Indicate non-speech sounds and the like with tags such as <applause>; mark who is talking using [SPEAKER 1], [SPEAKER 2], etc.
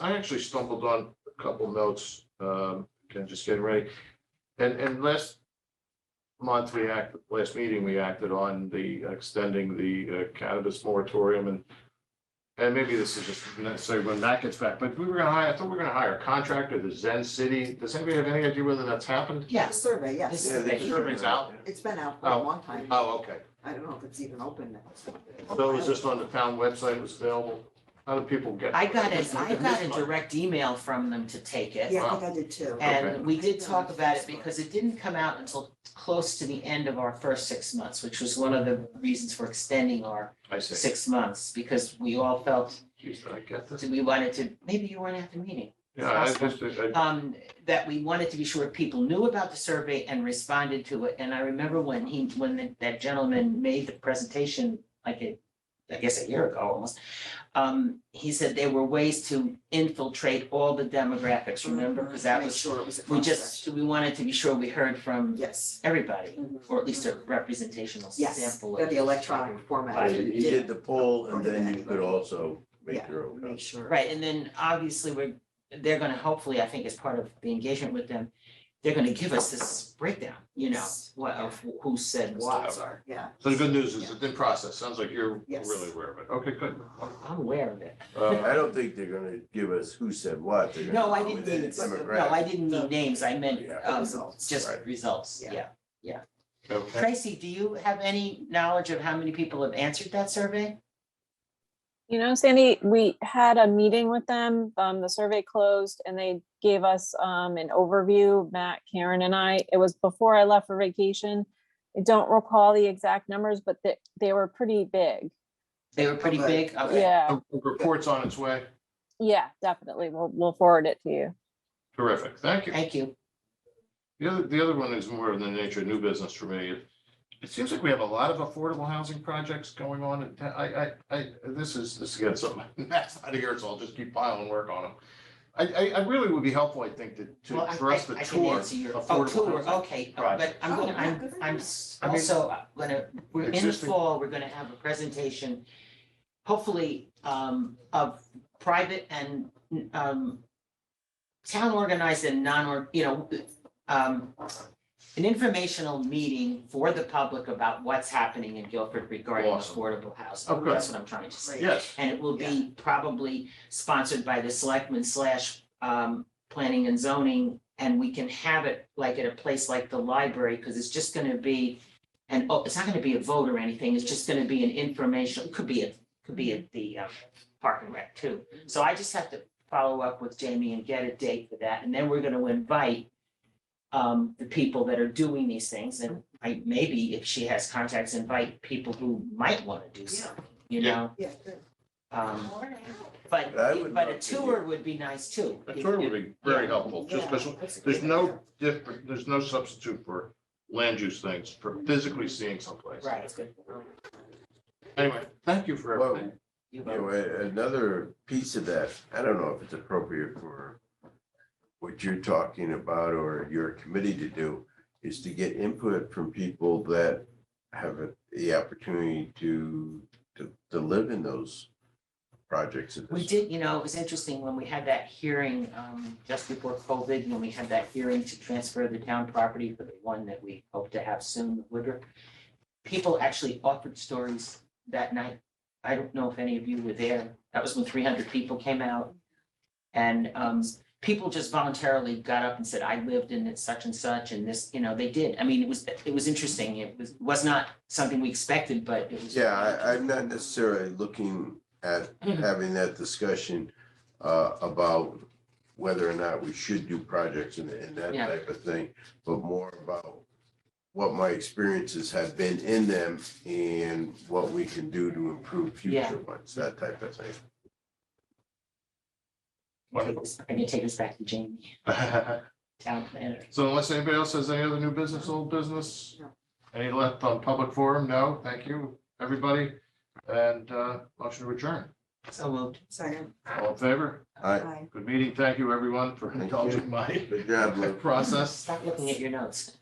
[SPEAKER 1] I actually stumbled on a couple notes, um, kind of just getting ready. And, and last month, we act, last meeting, we acted on the extending the uh, cannabis moratorium and and maybe this is just necessary when that gets back, but we were gonna hire, I thought we were gonna hire a contractor, the Zen City. Does anybody have any idea whether that's happened?
[SPEAKER 2] Yeah, the survey, yes.
[SPEAKER 1] Yeah, the survey's out.
[SPEAKER 2] It's been out for a
[SPEAKER 1] Oh.
[SPEAKER 2] long time.
[SPEAKER 1] Oh, okay.
[SPEAKER 2] I don't know if it's even open now.
[SPEAKER 1] So it was just on the town website, it was available. How do people get?
[SPEAKER 3] I got it, I got a
[SPEAKER 1] This month.
[SPEAKER 3] direct email from them to take it.
[SPEAKER 2] Yeah, I think I did too.
[SPEAKER 1] Okay.
[SPEAKER 3] And we did talk about it because it didn't come out until close to the end of our first six months, which was one of the reasons for extending our
[SPEAKER 1] I see.
[SPEAKER 3] six months, because we all felt
[SPEAKER 1] Jeez, did I get this?
[SPEAKER 3] that we wanted to, maybe you weren't at the meeting.
[SPEAKER 1] Yeah, I just, I
[SPEAKER 3] Um, that we wanted to be sure people knew about the survey and responded to it. And I remember when he, when that gentleman made the presentation, like it, I guess a year ago almost, um, he said there were ways to infiltrate all the demographics, remember? Because that
[SPEAKER 2] Make
[SPEAKER 3] was
[SPEAKER 2] sure it was a
[SPEAKER 3] we
[SPEAKER 2] process.
[SPEAKER 3] just, we wanted to be sure we heard from
[SPEAKER 2] Yes,
[SPEAKER 3] everybody,
[SPEAKER 2] Mhm.
[SPEAKER 3] or at least a representational
[SPEAKER 2] yes,
[SPEAKER 3] sample.
[SPEAKER 2] the
[SPEAKER 3] of-
[SPEAKER 2] electronic format.
[SPEAKER 4] Yeah, You did the poll and then you could
[SPEAKER 2] Yeah.
[SPEAKER 4] also make your own.
[SPEAKER 2] Make sure.
[SPEAKER 3] Right, and then obviously we're, they're gonna hopefully, I think as part of the engagement with them, they're gonna give us this breakdown, you know,
[SPEAKER 2] Yes.
[SPEAKER 3] what of who said
[SPEAKER 2] Wow.
[SPEAKER 3] what.
[SPEAKER 2] Yeah,
[SPEAKER 1] So the good news is it's in process. Sounds like you're
[SPEAKER 2] Yes.
[SPEAKER 1] really aware of it. Okay, good.
[SPEAKER 3] I'm aware of it.
[SPEAKER 4] I
[SPEAKER 1] Uh,
[SPEAKER 4] don't think they're gonna give us who said what. They're gonna
[SPEAKER 3] No, I
[SPEAKER 4] go
[SPEAKER 3] didn't
[SPEAKER 4] within
[SPEAKER 3] mean,
[SPEAKER 4] the
[SPEAKER 3] no,
[SPEAKER 4] demographic.
[SPEAKER 3] I didn't mean names, I meant
[SPEAKER 4] Yeah.
[SPEAKER 3] um
[SPEAKER 2] Results.
[SPEAKER 3] just
[SPEAKER 4] Right.
[SPEAKER 3] results,
[SPEAKER 2] Yeah.
[SPEAKER 3] yeah.
[SPEAKER 1] okay.
[SPEAKER 3] Tracy, do you have any knowledge of how many people have answered that survey?
[SPEAKER 5] You know, Sandy, we had a meeting with them, um, the survey closed and they gave us, um, an overview, Matt, Karen and I, it was before I left for vacation. I don't recall the exact numbers, but they, they were pretty big.
[SPEAKER 3] They were pretty
[SPEAKER 2] Okay.
[SPEAKER 3] big, okay.
[SPEAKER 5] Yeah,
[SPEAKER 1] The Report's on its way.
[SPEAKER 5] yeah, definitely. We'll, we'll forward it to you.
[SPEAKER 1] Terrific. Thank you.
[SPEAKER 3] Thank you.
[SPEAKER 1] The other, the other one is more in the nature of new business for me. It- It seems like we have a lot of affordable housing projects going on. and I, I, I, this is, this is getting something <laughs> that's out of here, so I'll just keep piling work on them. I, I, I really would be helpful, I think, to,
[SPEAKER 3] Well,
[SPEAKER 1] to,
[SPEAKER 3] I-
[SPEAKER 1] for us
[SPEAKER 3] I-
[SPEAKER 1] to
[SPEAKER 3] I can
[SPEAKER 1] tour.
[SPEAKER 3] answer your- Oh,
[SPEAKER 1] affordable
[SPEAKER 3] tour,
[SPEAKER 1] housing.
[SPEAKER 3] okay, uh, but
[SPEAKER 1] project.
[SPEAKER 3] I'm,
[SPEAKER 2] Oh,
[SPEAKER 3] gonna-
[SPEAKER 2] yeah,
[SPEAKER 3] I'm,
[SPEAKER 2] good
[SPEAKER 3] I'm
[SPEAKER 2] idea.
[SPEAKER 3] s-
[SPEAKER 1] I mean-
[SPEAKER 3] also uh, gonna, we're in the
[SPEAKER 1] Existing-
[SPEAKER 3] fall, we're gonna have a presentation, hopefully, um, of private and, um, town organized and non, or you know, um, an informational meeting for the public about what's happening in Guilford regarding
[SPEAKER 1] Awesome.
[SPEAKER 3] affordable housing.
[SPEAKER 1] Oh, good.
[SPEAKER 3] That's what I'm trying to say.
[SPEAKER 2] Great.
[SPEAKER 1] Yes,
[SPEAKER 3] And it will
[SPEAKER 2] Yeah.
[SPEAKER 3] be probably sponsored by the selectmen slash um planning and zoning. And we can have it like at a place like the library, because it's just gonna be. And oh, it's not gonna be a vote or anything, it's just gonna be an informational, could be a, could be at the um park and rec too. So I just have to follow up with Jamie and get a date for that, and then we're gonna invite. Um, the people that are doing these things, and I maybe if she has contacts, invite people who might wanna do something, you
[SPEAKER 1] Yeah.
[SPEAKER 3] know?
[SPEAKER 2] yeah, good.
[SPEAKER 3] Um, but,
[SPEAKER 4] But I would
[SPEAKER 3] but a
[SPEAKER 4] love to
[SPEAKER 3] tour would be nice too.
[SPEAKER 1] a tour would be very helpful, just because
[SPEAKER 2] Yeah, that's a
[SPEAKER 1] There's
[SPEAKER 2] good
[SPEAKER 1] no
[SPEAKER 2] idea.
[SPEAKER 1] different, there's no substitute for land use things, for physically seeing someplace.
[SPEAKER 3] Right.
[SPEAKER 1] Anyway, thank you for
[SPEAKER 4] Well,
[SPEAKER 1] everything.
[SPEAKER 3] You
[SPEAKER 4] You know,
[SPEAKER 3] know,
[SPEAKER 4] a- another piece of that, I don't know if it's appropriate for what you're talking about or your committee to do, is to get input from people that have the opportunity to, to, to live in those projects. at
[SPEAKER 3] We
[SPEAKER 4] this-
[SPEAKER 3] did, you know, it was interesting when we had that hearing, um, just before COVID, when we had that hearing to transfer the town property for the one that we hope to have soon, Woodruff. People actually offered stories that night. I don't know if any of you were there. That was when three hundred people came out. And, um, people just voluntarily got up and said, I lived in such and such and this, you know, they did. I mean, it was, it was interesting. It was, was not something we expected, but it was.
[SPEAKER 4] Yeah, I, I'm not necessarily looking at
[SPEAKER 3] Mm-hmm.
[SPEAKER 4] having that discussion uh, about whether or not we should do projects and, and that
[SPEAKER 3] Yeah.
[SPEAKER 4] type of thing, but more about what my experiences have been in them and what we can do to improve
[SPEAKER 3] Yeah.
[SPEAKER 4] future ones, that type of thing.
[SPEAKER 3] Take this- I'm gonna take this back to Jamie, town planner.
[SPEAKER 1] So unless anybody else has any other new business, old business,
[SPEAKER 2] No.
[SPEAKER 1] any left on public forum? No, thank you, everybody. And uh, motion to adjourn.
[SPEAKER 3] So moved.
[SPEAKER 2] Second,
[SPEAKER 1] All in favor?
[SPEAKER 4] All right,
[SPEAKER 2] aye.
[SPEAKER 1] Good meeting. Thank you, everyone, for
[SPEAKER 4] Thank you.
[SPEAKER 1] indulging my
[SPEAKER 4] good job,
[SPEAKER 1] <laughs>
[SPEAKER 4] Lou.
[SPEAKER 1] process.
[SPEAKER 3] Stop looking at your notes.